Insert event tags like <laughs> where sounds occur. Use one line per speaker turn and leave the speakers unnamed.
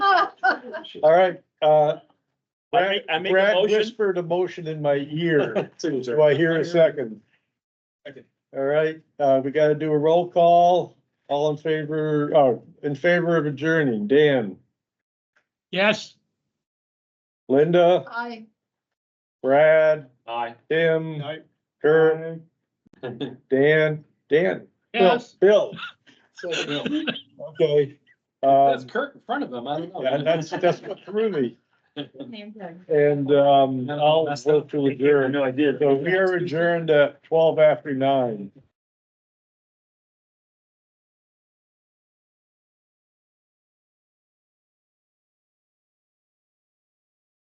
should.
All right, uh,
I make, I make a
Brad
motion.
whispered a motion in my
<laughs>
ear. Do
to-
I hear a second?
Second.
All right, uh, we gotta do a roll call. All in favor, uh, in favor of adjourning, Dan,
Yes.
<laughs> Linda,
Aye.
Brad,
Aye.
Tim, Kurt, Dan, Dan. Bill, Um,
Yes.
Bill,
So,
okay.
That's
Um,
Kirk in front of him, I don't know.
yeah,
<laughs>
that's, that's what threw me.
Name tag.
And, um, I'll vote to adjourn.
No, I did.
So we are adjourned at twelve after nine.